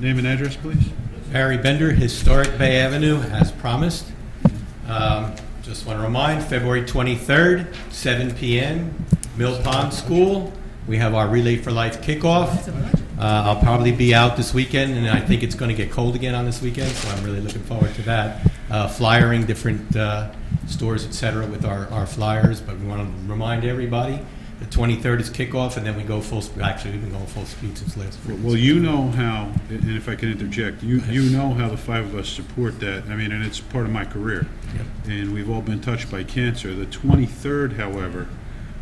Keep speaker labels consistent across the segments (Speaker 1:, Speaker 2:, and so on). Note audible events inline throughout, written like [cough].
Speaker 1: Name and address, please.
Speaker 2: Barry Bender, Historic Bay Avenue, as promised. Um, Just want to remind, February 23rd, 7 PM, Mill Pond School. We have our Relay for Life kickoff. Uh, I'll probably be out this weekend, and I think it's going to get cold again on this weekend, so I'm really looking forward to that. Uh, Flyering different uh, stores, et cetera, with our our flyers, but we want to remind everybody, the 23rd is kickoff, and then we go full, sp- actually, we've been going full speed since last week.
Speaker 1: Well, you know how, and if I can interject, you, you know how the five of us support that. I mean, and it's part of my career. And we've all been touched by cancer. The 23rd, however,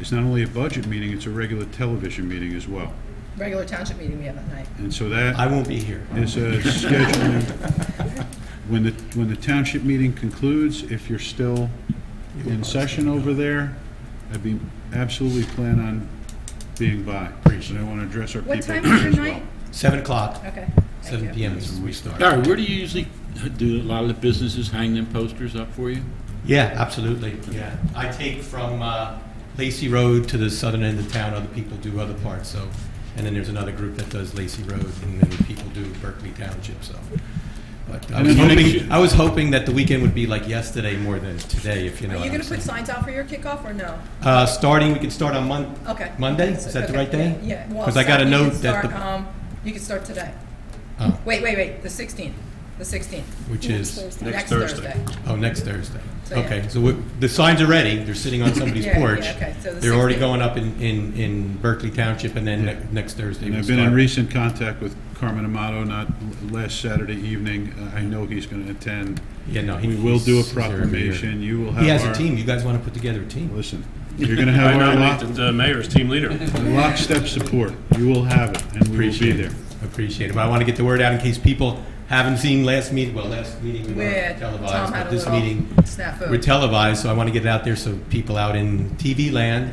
Speaker 1: is not only a budget meeting, it's a regular television meeting as well.
Speaker 3: regular township meeting we have that night.
Speaker 1: And so that.
Speaker 2: I won't be here.
Speaker 1: is [laughs] a scheduling, when the, when the township meeting concludes, if you're still in session over there, I'd be, absolutely plan on being by. Appreciate And I want to address our people
Speaker 3: What
Speaker 1: as well.
Speaker 3: time is your night?
Speaker 2: 7 o'clock.
Speaker 3: Okay. thank you.
Speaker 2: 7 PM is when we start.
Speaker 4: Barry, where do you usually, do a lot of the businesses hang them posters up for you?
Speaker 2: Yeah, absolutely, yeah. I take from uh, Lacey Road to the southern end of town, other people do other parts, so, and then there's another group that does Lacey Road, and then people do Berkeley Township, so. But I
Speaker 1: And
Speaker 2: was
Speaker 1: then you
Speaker 2: hoping,
Speaker 1: mentioned-
Speaker 2: I was hoping that the weekend would be like yesterday more than today, if you know
Speaker 3: Are
Speaker 2: what
Speaker 3: you
Speaker 2: I'm
Speaker 3: gonna put
Speaker 2: saying.
Speaker 3: signs out for your kickoff or no?
Speaker 2: Uh, Starting, we can start on Mon,
Speaker 3: Okay.
Speaker 2: Monday, is that the
Speaker 3: Okay,
Speaker 2: right day?
Speaker 3: Yeah. well,
Speaker 2: Because I got a
Speaker 3: you can
Speaker 2: note that,
Speaker 3: start,
Speaker 2: the-
Speaker 3: um, You can start today.
Speaker 2: oh,
Speaker 3: Wait, wait, wait, the sixteenth, the sixteenth,
Speaker 2: which is,
Speaker 3: next
Speaker 1: Thursday.
Speaker 3: Thursday.
Speaker 2: oh, next Thursday.
Speaker 3: So, yeah.
Speaker 2: Okay, so we- the signs are ready, they're sitting
Speaker 3: [laughs]
Speaker 2: on somebody's
Speaker 3: Yeah, yeah,
Speaker 2: porch.
Speaker 3: okay, so the
Speaker 2: They're already
Speaker 3: 16th.
Speaker 2: going up in, in, in Berkeley Township, and then ne- next Thursday
Speaker 1: And
Speaker 2: we
Speaker 1: I've been in
Speaker 2: start.
Speaker 1: recent contact with Carmen Amato, not l- last Saturday evening. Uh, I know he's going to attend.
Speaker 2: Yeah, no, he
Speaker 1: We will do a
Speaker 2: he's- he's there every year.
Speaker 1: proclamation. You will have
Speaker 2: He has a
Speaker 1: our-
Speaker 2: team, you guys want to put together a team?
Speaker 1: Listen, you're going to
Speaker 2: [laughs]
Speaker 1: have our lock-
Speaker 5: the mayor's team leader.
Speaker 1: lockstep support. You will have it, and we will be
Speaker 2: Appreciate
Speaker 1: there.
Speaker 2: it, appreciate it, but I want to get the word out in case people haven't seen last meeting, well, last meeting we
Speaker 3: Where
Speaker 2: were
Speaker 3: Tom
Speaker 2: televised,
Speaker 3: had a
Speaker 2: but this
Speaker 3: little
Speaker 2: meeting,
Speaker 3: snafu.
Speaker 2: we're televised, so I want to get it out there so people out in TV land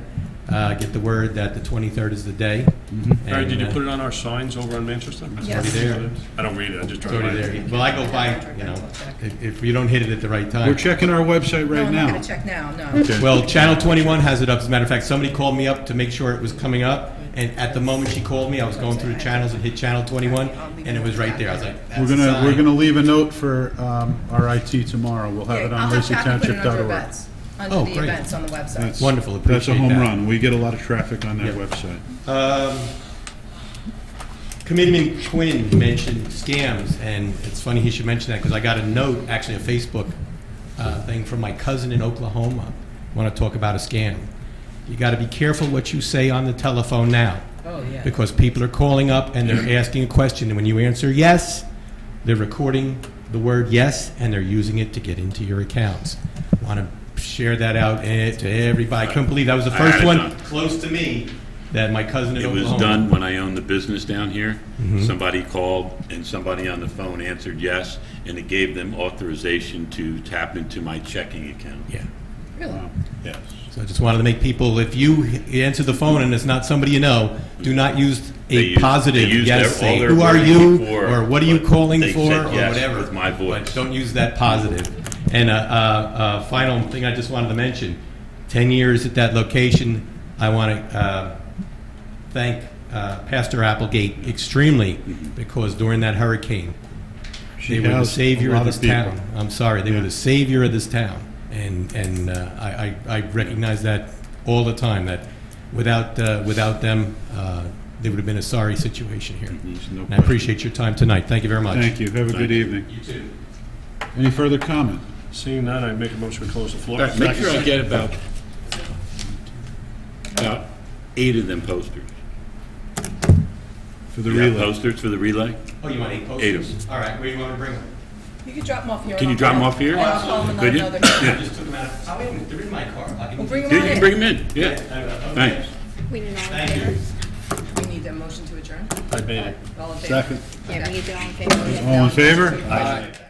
Speaker 2: uh, get the word that the 23rd is the day.
Speaker 1: Mm-hmm.
Speaker 2: uh,
Speaker 5: Barry, did you put it on our signs over on Manchester?
Speaker 3: Yes.
Speaker 2: It's already there,
Speaker 5: I don't read it, I just
Speaker 2: it's
Speaker 5: drive by.
Speaker 2: already there. Well, I go by, you know, if- if you don't hit it at the right time.
Speaker 1: We're checking our website
Speaker 3: No,
Speaker 1: right
Speaker 3: I'm
Speaker 1: now.
Speaker 3: not gonna check now, no.
Speaker 1: Okay.
Speaker 2: Well, Channel 21 has it up. As a matter of fact, somebody called me up to make sure it was coming up, and at the moment she called me, I was going through the channels and hit Channel 21, and it was right there. I was like,
Speaker 1: We're
Speaker 2: that's the
Speaker 1: gonna, we're
Speaker 2: sign.
Speaker 1: gonna leave a note for um, our IT tomorrow. We'll have it
Speaker 3: Yeah, I'll
Speaker 1: on
Speaker 3: have Kathy put it under
Speaker 1: lacytownship.org.
Speaker 3: events,
Speaker 2: Oh,
Speaker 3: under the
Speaker 2: great.
Speaker 3: events on the website.
Speaker 1: That's-
Speaker 2: Wonderful,
Speaker 1: That's a
Speaker 2: appreciate
Speaker 1: home
Speaker 2: that.
Speaker 1: run. We get a lot of traffic on that
Speaker 2: Yeah.
Speaker 1: website.
Speaker 2: Um, Committeeman Quinn mentioned scams, and it's funny he should mention that, because I got a note, actually a Facebook uh, thing from my cousin in Oklahoma. Want to talk about a scam. You got to be careful what you say on the telephone now.
Speaker 3: Oh, yeah.
Speaker 2: Because people are calling up and they're asking a question, and when you answer yes, they're recording the word yes, and they're using it to get into your accounts. Want to share that out eh, to everybody. I couldn't believe that was the
Speaker 4: I had
Speaker 2: first
Speaker 4: it
Speaker 2: one
Speaker 4: done.
Speaker 2: close to me that my cousin in
Speaker 4: It was
Speaker 2: Oklahoma-
Speaker 4: done when I owned the business down here.
Speaker 1: Mm-hmm.
Speaker 4: Somebody called and somebody on the phone answered yes, and it gave them authorization to tap into my checking account.
Speaker 2: Yeah.
Speaker 3: Really?
Speaker 4: Yes.
Speaker 2: So I just wanted to make people, if you h- answer the phone and it's not somebody you know, do not use
Speaker 4: They
Speaker 2: a
Speaker 4: used-
Speaker 2: positive
Speaker 4: they used
Speaker 2: yes,
Speaker 4: their- all
Speaker 2: say,
Speaker 4: their
Speaker 2: who are
Speaker 4: words
Speaker 2: you,
Speaker 4: before,
Speaker 2: or what are you
Speaker 4: but
Speaker 2: calling
Speaker 4: they
Speaker 2: for,
Speaker 4: said
Speaker 2: or
Speaker 4: yes
Speaker 2: whatever.
Speaker 4: with my voice.
Speaker 2: But don't use that positive. And a uh, uh, final thing I just wanted to mention, 10 years at that location, I want to uh, thank uh, Pastor Applegate extremely,
Speaker 4: Mm-hmm.
Speaker 2: because during that hurricane,
Speaker 1: She
Speaker 2: they were the
Speaker 1: housed a
Speaker 2: savior
Speaker 1: lot
Speaker 2: of this
Speaker 1: people.
Speaker 2: town. I'm sorry, they were
Speaker 1: Yeah.
Speaker 2: the savior of this town. And, and uh, I, I I recognize that all the time, that without, uh, without them, uh, there would have been a sorry situation here.
Speaker 1: There's no
Speaker 2: And I
Speaker 1: question.
Speaker 2: appreciate your time tonight. Thank you very much.
Speaker 1: Thank you. Have a good evening. You too. Any further comment?
Speaker 5: Seeing none, I make a motion to close the floor.
Speaker 4: Make sure I get about, about eight of them posters.
Speaker 1: For the
Speaker 4: You got
Speaker 1: relay.
Speaker 4: posters for the relay?
Speaker 2: Oh, you want eight
Speaker 4: Eight of
Speaker 2: posters?
Speaker 4: them.
Speaker 2: All right, where do you want to bring them?
Speaker 3: You can drop them off here.
Speaker 4: Can
Speaker 3: and
Speaker 4: you
Speaker 3: I'll
Speaker 4: drop 'em
Speaker 3: call-
Speaker 4: off here?
Speaker 3: and I'll call them
Speaker 4: Could you?
Speaker 3: another day.
Speaker 2: I just took them out of, oh, wait a minute, they're in my car. I can-
Speaker 3: We'll bring
Speaker 4: Yeah,
Speaker 3: them
Speaker 4: you
Speaker 3: on
Speaker 4: can
Speaker 3: in.
Speaker 4: bring them in, yeah.
Speaker 2: Uh, okay.
Speaker 4: Thanks.
Speaker 6: We need all in
Speaker 2: Thank you.
Speaker 6: favor?
Speaker 3: We need a motion to adjourn.
Speaker 5: I made it.
Speaker 3: All in favor?
Speaker 1: Second.
Speaker 6: Yeah, we need all in favor.
Speaker 1: All in favor?
Speaker 2: Bye.